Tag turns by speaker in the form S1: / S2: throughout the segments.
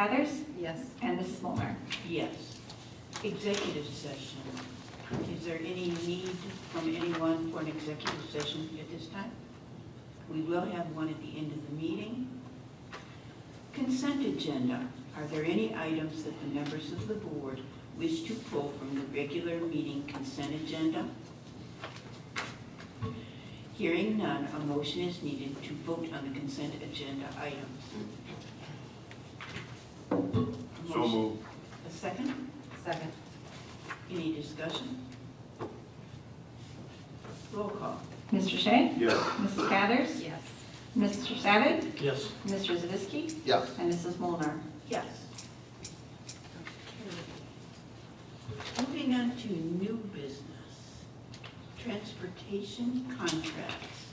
S1: Cathers
S2: Yes.
S1: and Mrs. Molnar.
S3: Yes. Executive session. Is there any need from anyone for an executive session at this time? We will have one at the end of the meeting. Consent agenda. Are there any items that the members of the board wish to pull from the regular meeting consent agenda? Hearing none, a motion is needed to vote on the consent agenda items. A
S4: So
S3: motion-
S4: moved.
S3: A second?
S2: Second.
S3: Any discussion? Roll call.
S1: Mr. Shea?
S4: Yes.
S1: Mrs. Cathers?
S2: Yes.
S1: Mr. Savick?
S5: Yes.
S1: Mr. Zavisky?
S4: Yes.
S1: And Mrs. Molnar.
S3: Yes. Moving on to new business, transportation contracts.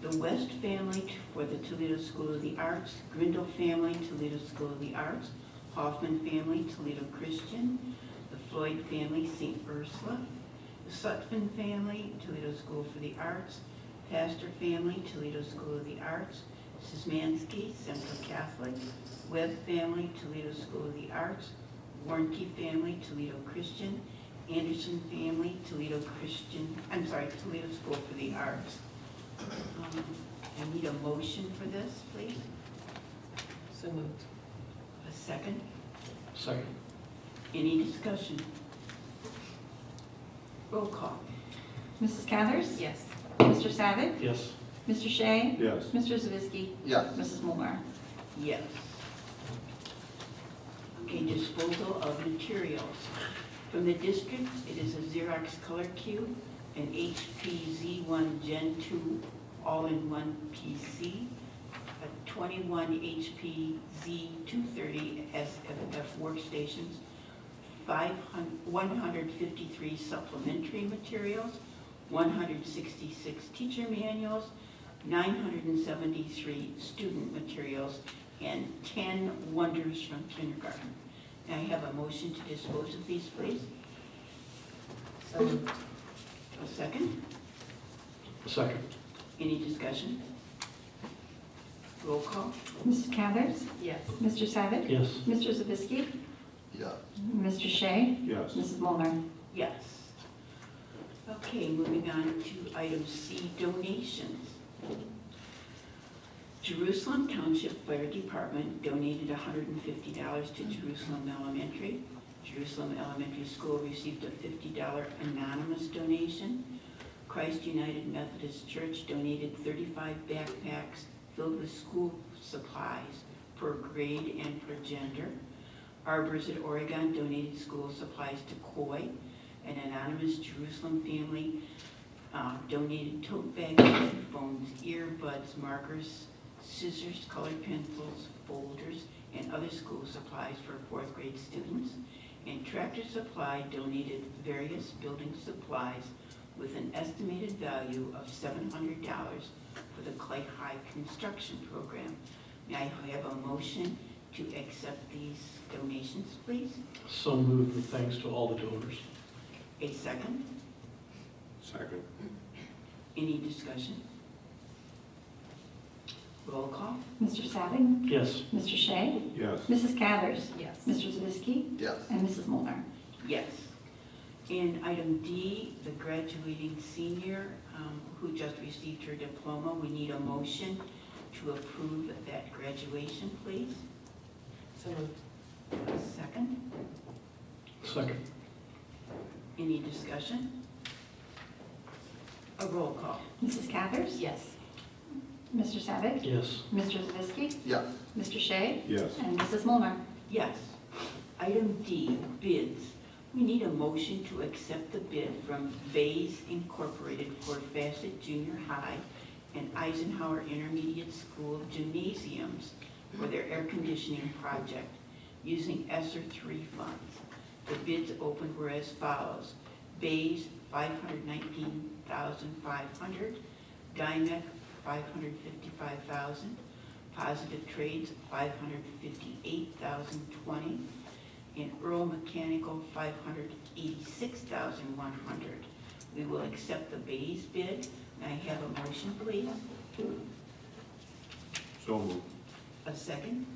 S3: The West family t- for the Toledo School of the Arts, Grindle family, Toledo School of the Arts, Hoffman family, Toledo Christian, the Floyd family, St. Ursula, the Sutphen family, Toledo School for the Arts, Pastor family, Toledo School of the Arts, Szymanski, Central Catholic, Webb family, Toledo School of the Arts, Warnke family, Toledo Christian, Anderson family, Toledo Christian, I'm sorry, Toledo School for the Arts. Um, I need a motion for this, please,
S2: So moved.
S3: a second.
S5: Second.
S3: Any discussion? Roll call.
S1: Mrs. Cathers?
S2: Yes.
S1: Mr. Savick?
S5: Yes.
S1: Mr. Shea?
S4: Yes.
S1: Mr. Zavisky?
S4: Yes.
S1: Mrs. Molnar.
S3: Yes. Okay, disposal of materials. From the district, it is a Xerox color cube, an HP Z1 Gen 2 all-in-one PC, a 21 HP Z230 SFF workstations, 500 153 supplementary materials, 166 teacher manuals, 973 student materials, and 10 wonders from kindergarten. May I have a motion to dispose of these, please?
S2: So moved.
S3: A second?
S5: Second.
S3: Any discussion? Roll call?
S1: Mrs. Cathers?
S2: Yes.
S1: Mr. Savick?
S5: Yes.
S1: Mr. Zavisky?
S4: Yes.
S1: Mr. Shea?
S4: Yes.
S1: Mrs. Molnar.
S3: Yes. Okay, moving on to item C, donations. Jerusalem Township Fire Department donated $150 to Jerusalem Elementary. Jerusalem Elementary School received a $50 anonymous donation. Christ United Methodist Church donated 35 backpacks filled with school supplies per grade and per gender. Arbors at Oregon donated school supplies to Coy. An anonymous Jerusalem family uh, donated tote bags, headphones, earbuds, markers, scissors, colored pencils, folders, and other school supplies for fourth grade students. And Tractor Supply donated various building supplies with an estimated value of $700 for the Clay High Construction Program. May I have a motion to accept these donations, please?
S5: So moved with thanks to all the donors.
S3: A second?
S4: Second.
S3: Any discussion? Roll call?
S1: Mr. Savick?
S5: Yes.
S1: Mr. Shea?
S4: Yes.
S1: Mrs. Cathers?
S2: Yes.
S1: Mr. Zavisky?
S4: Yes.
S1: And Mrs. Molnar.
S3: Yes. In item D, the graduating senior um, who just received her diploma, we need a motion to approve that graduation, please.
S2: So moved.
S3: A second?
S5: Second.
S3: Any discussion? A roll call?
S1: Mrs. Cathers?
S2: Yes.
S1: Mr. Savick?
S5: Yes.
S1: Mr. Zavisky?
S4: Yes.
S1: Mr. Shea?
S4: Yes.
S1: And Mrs. Molnar.
S3: Yes. Item D, bids. We need a motion to accept the bid from Bays Incorporated for Facet Junior High and Eisenhower Intermediate School gymnasiums for their air conditioning project using ESSER three funds. The bids open were as follows. Bays, five hundred nineteen thousand five hundred. Dymec, five hundred fifty-five thousand. Positive Trades, five hundred fifty-eight thousand twenty, and Earl Mechanical, five hundred eighty-six thousand one hundred. We will accept the Bayes bid. May I have a motion, please?
S4: So moved.
S3: A second?